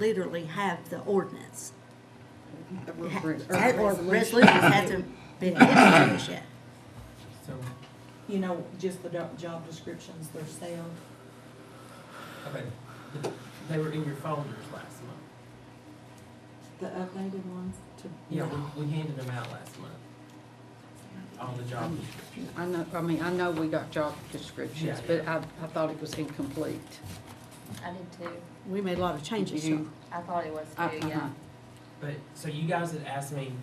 literally have the ordinance. Or It ha- a Or resolution. resolutions hasn't been introduced yet. So, You know, just the do- job descriptions themselves. okay, th- they were in your folders last month. The updated ones to. Yeah, we, we handed them out last month. All the Mm-hmm. job descriptions. I know, I mean, I know we got job descriptions, Yeah, but I, I thought it was incomplete. I did too. We made a lot of changes, so. I thought it was Uh, too, yeah. uh-huh. But, so you guys had asked me,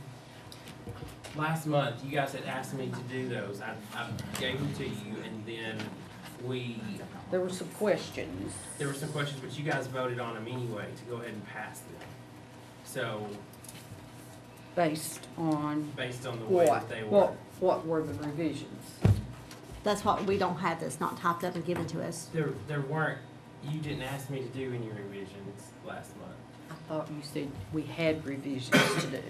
last month, you guys had asked me to do those. I, I gave them to you and then we, There were some questions. there were some questions, but you guys voted on them anyway to go ahead and pass them. So, Based on based on the way what, that they were, what, what were the revisions? That's what we don't have, that's not typed up and given to us. there, there weren't, you didn't ask me to do any revisions last month. I thought you said we had revisions to do.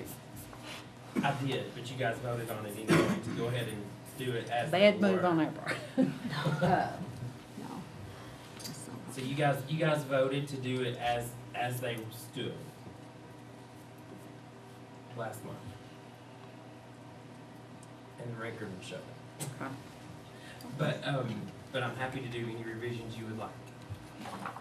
I did, but you guys voted on it anyway to go ahead and do it as. they Bad move were. on our part. Uh, No. That's not- So you guys, you guys voted to do it as, as they stood. Last month. And the record will show it. okay. But, um, but I'm happy to do any revisions you would like.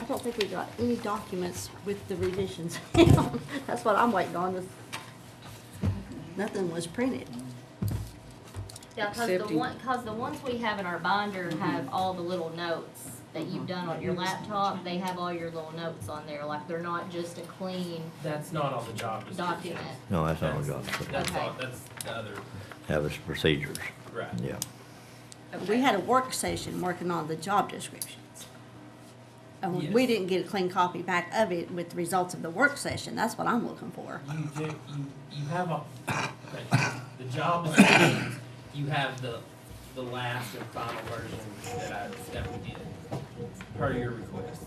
I don't think we got any documents with the revisions. That's what I'm waiting on, is nothing was printed. Yeah, cause the Accepting. Mm-hmm. one, cause the ones we have in our binder have all the little notes that you've Uh-huh. done on your laptop. They have all your little notes on there, like they're not just a clean That's not all the job descriptions. document. No, that's not what That's- got, That's all, Okay. that's the other, have its procedures, right. yeah. We had a work session working on the job descriptions. And we Yes. didn't get a clean copy back of it with the results of the work session, that's what I'm looking for. You do, you, you have a, the job descriptions, you have the, the last and final version that I, that we did, per your request.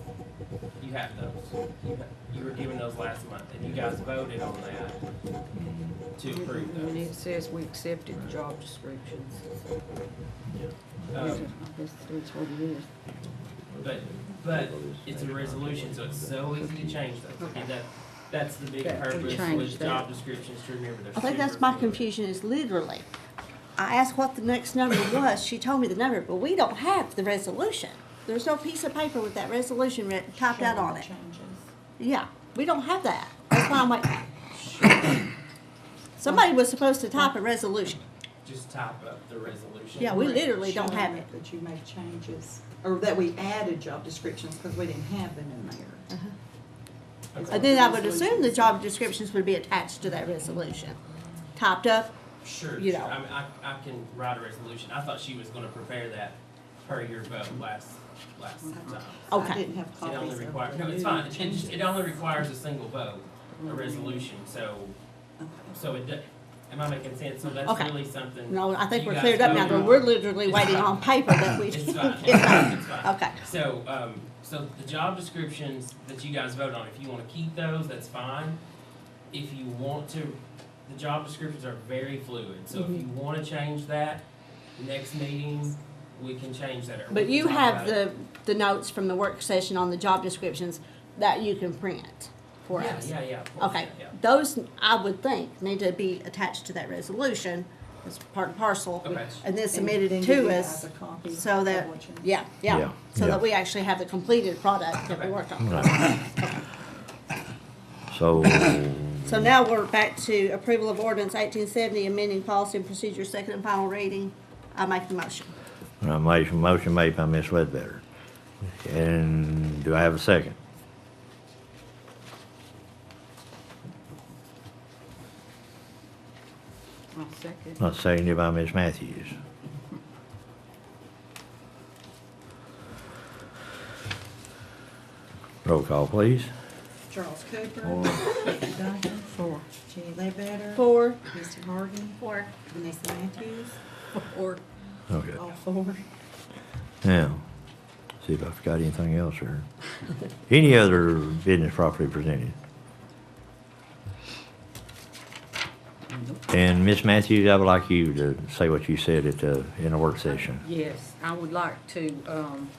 You have those, you, ha- you were given those last month, and you guys voted on that to approve And those. it says we accepted the job descriptions. Mm-hmm. Um, I guess that's what it is. but, but it's a resolution, so it's so easy to change those, and that, that's the big That we purpose changed with that. job descriptions, to remember they're I think that's my super fluid. confusion is literally, I asked what the next number was, she told me the number, but we don't have the resolution. There's no piece of paper with that resolution writ- typed out on it. Changes. Yeah, we don't have that. That's why I'm like, somebody was supposed to type a resolution. Just type up the resolution. Yeah, we literally don't Showing have it. That you made changes, or that we added job descriptions, cause we didn't have them in there. Okay. And then I would assume the job descriptions would be attached to that resolution, typed up. Sure, you sure. know. I, mean, I, I can write a resolution. I thought she was gonna prepare that per your vote last, last time. Okay. I didn't have It Mm-hmm. only copies of requires, the no, it's new fine. It changes. Mm-hmm. just, it only requires a single vote, a resolution, so, so it, do- am I making sense? So that's Okay. really something. No, I think you we're guys cleared up now, voted but on. we're literally It's waiting fine. on paper that we It's didn't fine, get it's back. fine, it's fine. Okay, So, um, so the job descriptions that you guys vote on, if you wanna keep those, that's fine. If you want to, the job descriptions are very fluid, so if Mm-hmm. you wanna change that, next meeting, we can change that. or we but can you talk have about it. the, the notes from the work session on the job descriptions that you can print for Yeah, us. yeah, yeah, of course, Okay, yeah, those, I would think, need to be attached to that resolution as part and parcel. Okay. And then And submitted then you to have us, a copy so of that, what you- yeah, Yeah, yeah, so yeah. that we actually have the completed product that we Okay. worked on. Right. So, So now we're back to approval of ordinance eighteen seventy, amending policy and procedure, second and final reading. I make the motion. I made some motion made by Ms. Ledbetter. And do I have a second? I'll second. Not seconded by Ms. Matthews. Roll call, please. Charles Cooper. Four. Becky Duncan. Four. Jenny Ledbetter. Four. Christie Harden. Or Vanessa Matthews. Or. Okay. All four. Now, see if I forgot anything else or any other business properly presented. And Miss Matthews, I would like you to say what you said at the, in the work session. Yes, I would like to, um,